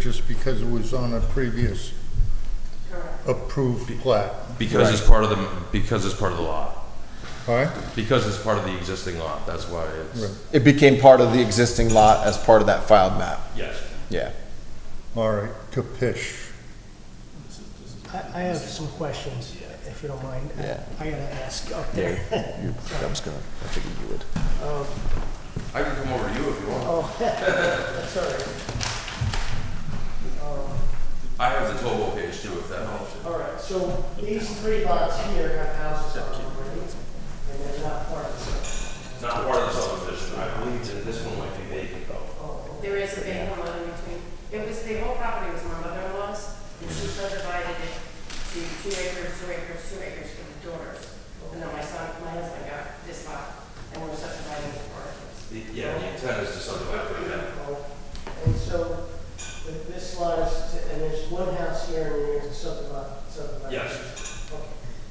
just because it was on a previous approved plat, Because it's part of the, because it's part of the law. all right? Because it's part of the existing law, that's why Right. it's. It became part of the existing lot as part of that filed map. Yes. Yeah. All right, Capish. I, I have some questions, if you don't mind. Yeah. I gotta ask up Yeah. there. you- I was gonna, I figured you would. I can come over to you if you want. Oh, that's all right. I have the total page too, if that helps. Um, All right, so these three lots here have houses on them, right? And they're not part of the It's not part of the subdivision, I believe that this one might be vacant though. There is a big one in between. It was, the whole property was my mother-in-law's, and she subdivided it to two acres, two acres, two acres for the daughters. And then my son, my husband got this lot, and we're subdividing it for us. The- Yeah, the intent is to subdivide it again. circle. And so th- this lot is, and there's one house here and there's a subdivision, subdivision. Yes. Okay.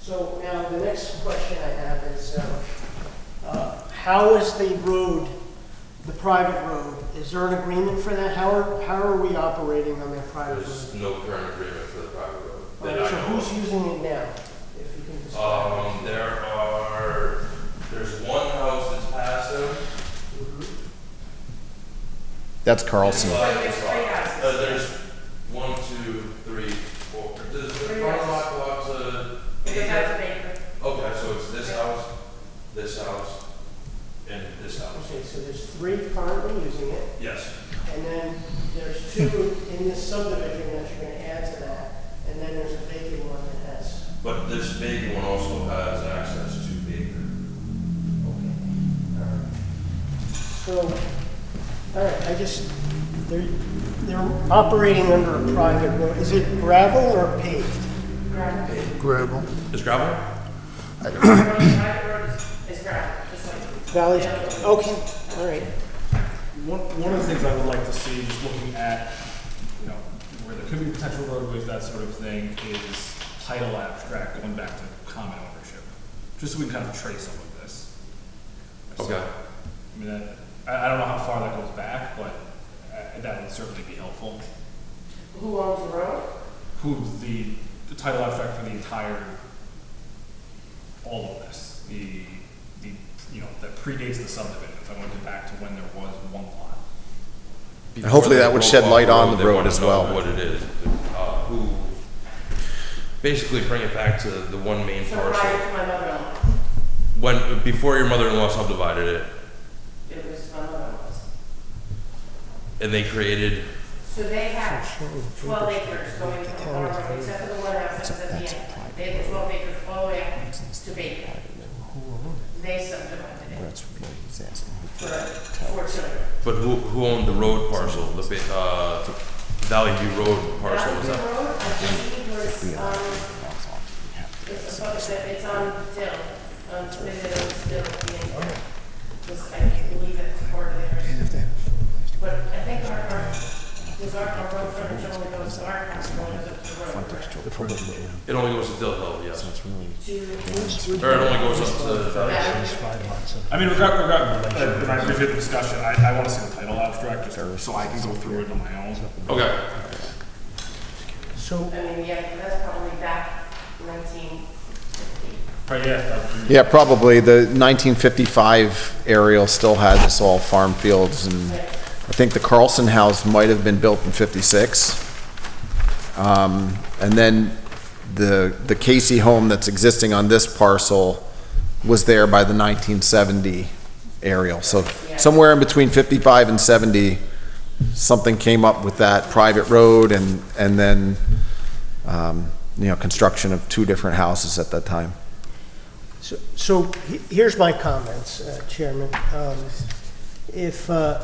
So now the next question I have is, uh, uh, how is the road, the private road, is there an agreement for that? How are, how are we operating on that private road? There's no current agreement for the private road that I So know who's of. using it now? If you can describe. Um, there are, there's one house that's passive. That's Carlson. Uh, So there's three Uh, houses. there's one, two, three, four. Does the Three front lot houses. go out to It goes out to acre? Baker. Okay, so it's this house, this house, and this house. Okay, so there's three currently using it. Yes. And then there's two in this subdivision that you're gonna add to that, and then there's a vacant one that has. But this big one also has access to Baker. So, all right, I just, they're, they're operating under a private road. Is it gravel or paved? Gravel. Is gravel? The private road is- is gravel, just like, Valley, okay, all right. One, one of the things I would like to see, just looking at, you know, where there could be potential roadways, that sort of thing, is title abstract going back to common ownership, just so we can kind of trace some of this. So, Okay. I mean, that- I, I don't know how far that goes back, but uh, that would certainly be helpful. who owns the road? Who the, the title abstract for the entire, all of this, the, the, you know, that predates the subdivisions, I want to get back to when there was one lot. And hopefully that would shed light on the road as well. What it is, uh, who, basically bring it back to the one main So parcel. prior to my mother-in-law, When, before your mother-in-law subdivided it, it was my mother-in-law's. and they created, So they have twelve acres going from Harlem, except for the one house that's at the end. They have twelve acres all the way up to Baker. They subdivided it for four children. but who, who owned the road parcel, the, ba- uh, Valley View Road parcel, was Mountain that? Road, I believe, was, um, it's above, the- it's on Dill, on Midland Dill, the end. Was, I believe that's part of theirs. But I think our, our, was our, our road frontage only goes, our house only goes up to the road. correct? It only goes to Dill Hill, yes. To- Or it only goes up to Valley. Yeah. I mean, regard, regard, uh, when I appreciate the discussion, I, I wanna see the title abstract, just so I can go through it on my own. Okay. So, I mean, yeah, that's probably back nineteen fifty. Right, yeah, that would be- Yeah, probably. The 1955 aerial still had this all farm fields, and I think the Carlson House might have been built in 56. Um, And then the, the Casey home that's existing on this parcel was there by the 1970 aerial. So somewhere in between 55 and 70, something came up with that private road and, and then, um, you know, construction of two different houses at that time. so- so he- here's my comments, uh, Chairman. Um, If, uh,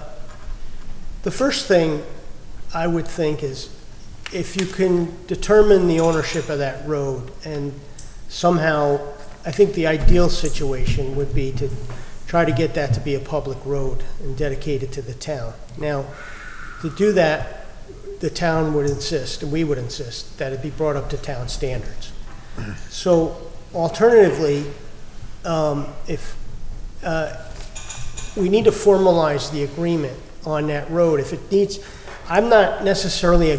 the first thing I would think is, if you can determine the ownership of that road and somehow, I think the ideal situation would be to try to get that to be a public road and dedicate it to the town. Now, to do that, the town would insist, and we would insist, that it be brought up to town standards. So alternatively, um, if, uh, we need to formalize the agreement on that road. If it needs, I'm not necessarily